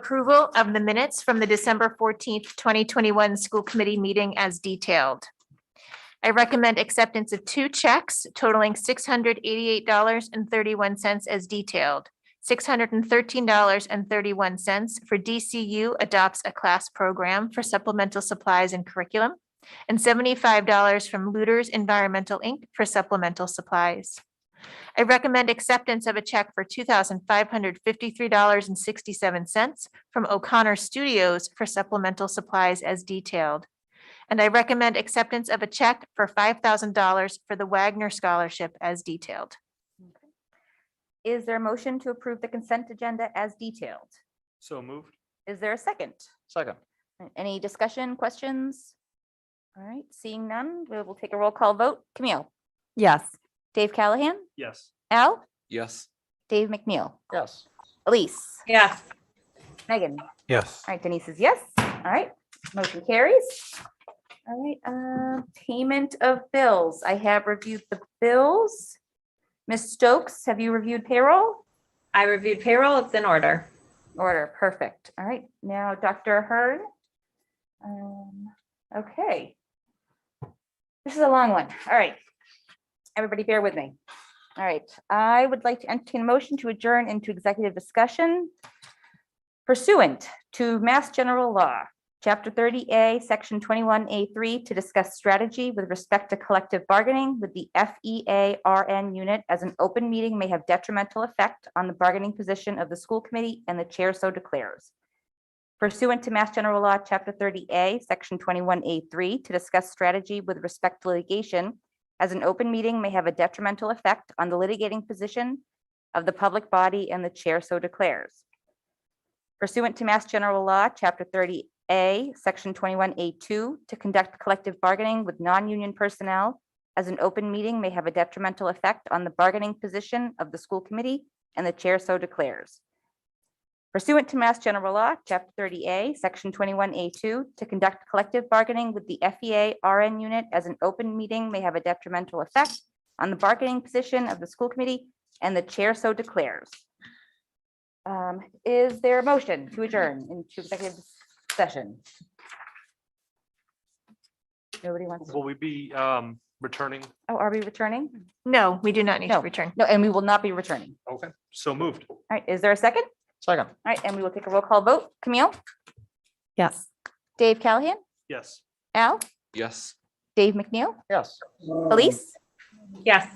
approval of the minutes from the December fourteenth, twenty twenty-one school committee meeting as detailed. I recommend acceptance of two checks totaling six hundred eighty-eight dollars and thirty-one cents as detailed. Six hundred and thirteen dollars and thirty-one cents for DCU adopts a class program for supplemental supplies and curriculum and seventy-five dollars from Looters Environmental Inc. for supplemental supplies. I recommend acceptance of a check for two thousand five hundred fifty-three dollars and sixty-seven cents from O'Connor Studios for supplemental supplies as detailed. And I recommend acceptance of a check for five thousand dollars for the Wagner Scholarship as detailed. Is there a motion to approve the consent agenda as detailed? So moved. Is there a second? Second. Any discussion, questions? All right, seeing none, we will take a roll call vote. Camille, yes, Dave Callahan, Yes. Al, Yes. Dave McNeil, Yes. Elise, yes, Megan. Yes. All right, Denise is yes. All right, motion carries. All right, uh, payment of bills. I have reviewed the bills. Ms. Stokes, have you reviewed payroll? I reviewed payroll, it's in order. Order, perfect. All right, now Dr. Hearn. Um, okay. This is a long one. All right. Everybody bear with me. All right, I would like to entertain a motion to adjourn into executive discussion pursuant to Mass General Law, Chapter 30A, Section 21A3, to discuss strategy with respect to collective bargaining with the E FEA-RN unit as an open meeting may have detrimental effect on the bargaining position of the school committee and the chair so declares. Pursuant to Mass General Law, Chapter 30A, Section 21A3, to discuss strategy with respect to litigation as an open meeting may have a detrimental effect on the litigating position of the public body and the chair so declares pursuant to Mass General Law, Chapter 30A, Section 21A2, to conduct collective bargaining with non-union personnel as an open meeting may have a detrimental effect on the bargaining position of the school committee, and the chair so declares. Pursuant to Mass General Law, Chapter 30A, Section 21A2, to conduct collective bargaining with the E FEA RN unit as an open meeting may have a detrimental effect on the bargaining position of the school committee, and the chair so declares. Um, is there a motion to adjourn into executive session? Nobody wants, Will we be um returning? oh, are we returning? No, we do not need to No. return. No, and we will not be returning. Okay. So moved. All right, is there a second? All Second. right, and we will take a roll call vote. Camille, yes. Dave Callahan, Yes. Al, Yes. Dave McNeil, Yes. Elise. Yes.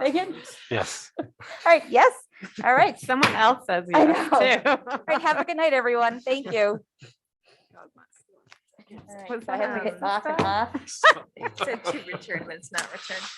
Megan? Yes. All right, yes. All right. Someone else says I yes, too. All right, have a good night, everyone. Thank you. All right, Was so I have that to on hit off and off. Said to return, but it's not returned.